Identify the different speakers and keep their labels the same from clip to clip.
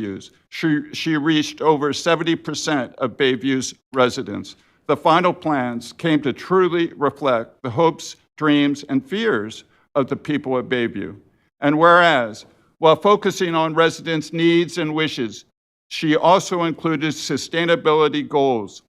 Speaker 1: Bayviews. She, she reached over 70% of Bayview's residents. The final plans came to truly reflect the hopes, dreams, and fears of the people of Bayview. And whereas, while focusing on residents' needs and wishes, she also included sustainability goals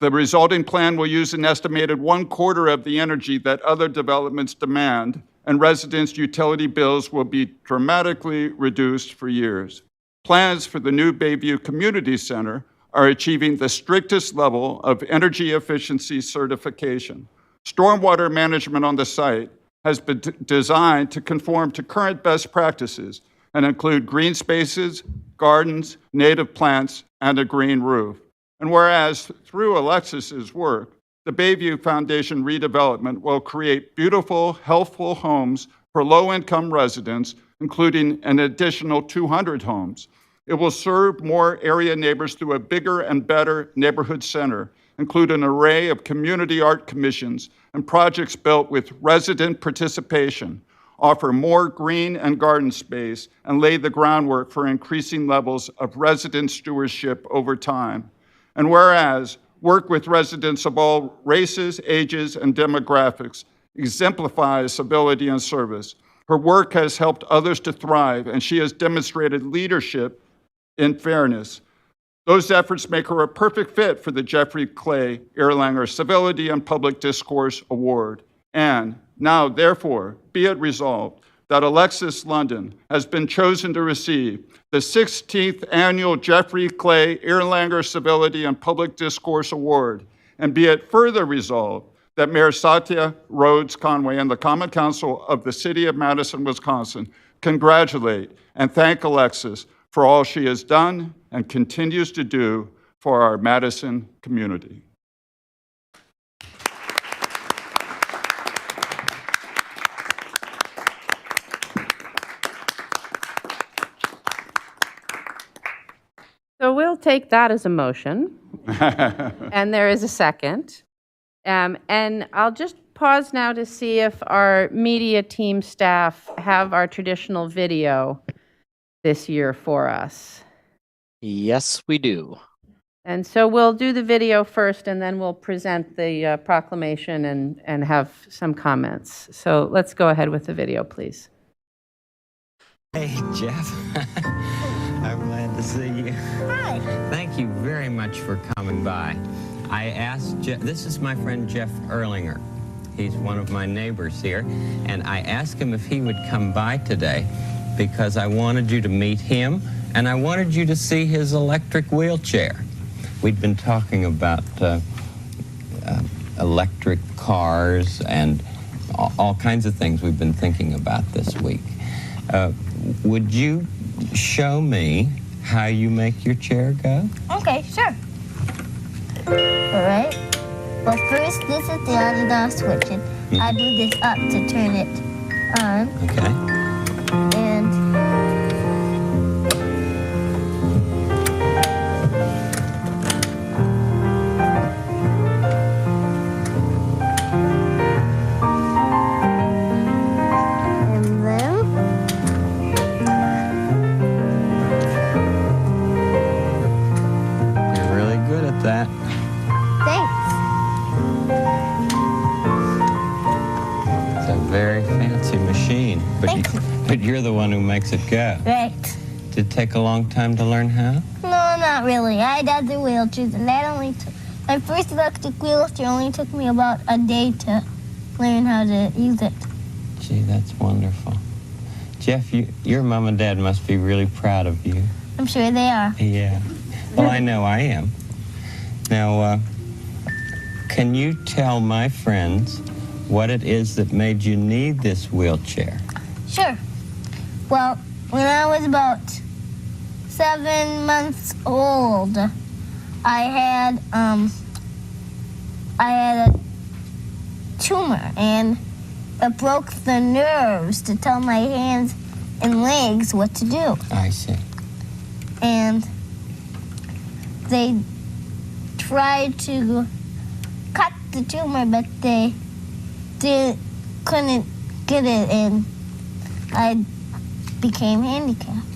Speaker 1: the resulting plan will use an estimated one quarter of the energy that other developments demand, and residents' utility bills will be dramatically reduced for years. Plans for the new Bayview Community Center are achieving the strictest level of energy efficiency certification. Stormwater management on the site has been d- designed to conform to current best practices and include green spaces, gardens, native plants, and a green roof. And whereas through Alexis's work, the Bayview Foundation redevelopment will create beautiful, healthful homes for low-income residents, including an additional 200 homes. It will serve more area neighbors through a bigger and better neighborhood center, include an array of community art commissions and projects built with resident participation, offer more green and garden space, and lay the groundwork for increasing levels of resident stewardship over time. And whereas, work with residents of all races, ages, and demographics exemplifies civility and service. Her work has helped others to thrive, and she has demonstrated leadership in fairness. Those efforts make her a perfect fit for the Jeffrey Clay Erlanger Civility and Public Discourse Award. And now, therefore, be it resolved that Alexis London has been chosen to receive the 16th Annual Jeffrey Clay Erlanger Civility and Public Discourse Award. And be it further resolved that Mayor Satya Rhodes Conway and the Common Council of the City of Madison, Wisconsin congratulate and thank Alexis for all she has done and continues to do for our Madison community.
Speaker 2: So we'll take that as a motion. And there is a second. Um, And I'll just pause now to see if our media team staff have our traditional video this year for us.
Speaker 3: Yes, we do.
Speaker 2: And so we'll do the video first, and then we'll present the uh, proclamation and, and have some comments. So let's go ahead with the video, please.
Speaker 4: Hey, Jeff. I'm glad to see you. Hi. Thank you very much for coming by. I asked Jeff, this is my friend Jeff Erlinger. He's one of my neighbors here. And I asked him if he would come by today because I wanted you to meet him and I wanted you to see his electric wheelchair. We'd been talking about. Uh, electric cars and a- all kinds of things we've been thinking about this week. Uh, would you show me how you make your chair go?
Speaker 5: Okay, sure. Alright. Well, first, this is the on and off switch. And I do this up to turn it on,
Speaker 4: Okay.
Speaker 5: and and then
Speaker 4: You're really good at that.
Speaker 5: thanks.
Speaker 4: It's a very fancy machine, but, you,
Speaker 5: Thank you.
Speaker 4: but you're the one who makes it go.
Speaker 5: Right.
Speaker 4: Did it take a long time to learn how?
Speaker 5: No, not really. I had other wheelchairs, and that only took my first electric wheelchair only took me about a day to learn how to use it.
Speaker 4: Gee, that's wonderful. Jeff, you, your mom and dad must be really proud of you.
Speaker 5: I'm sure they are.
Speaker 4: Yeah. Well, I know I am. Now, uh, can you tell my friends what it is that made you need this wheelchair?
Speaker 5: Sure. Well, when I was about seven months old, I had um, I had a tumor and it broke the nerves to tell my hands and legs what to do.
Speaker 4: I see.
Speaker 5: And they tried to cut the tumor, but they did, couldn't get it, and I became handicapped.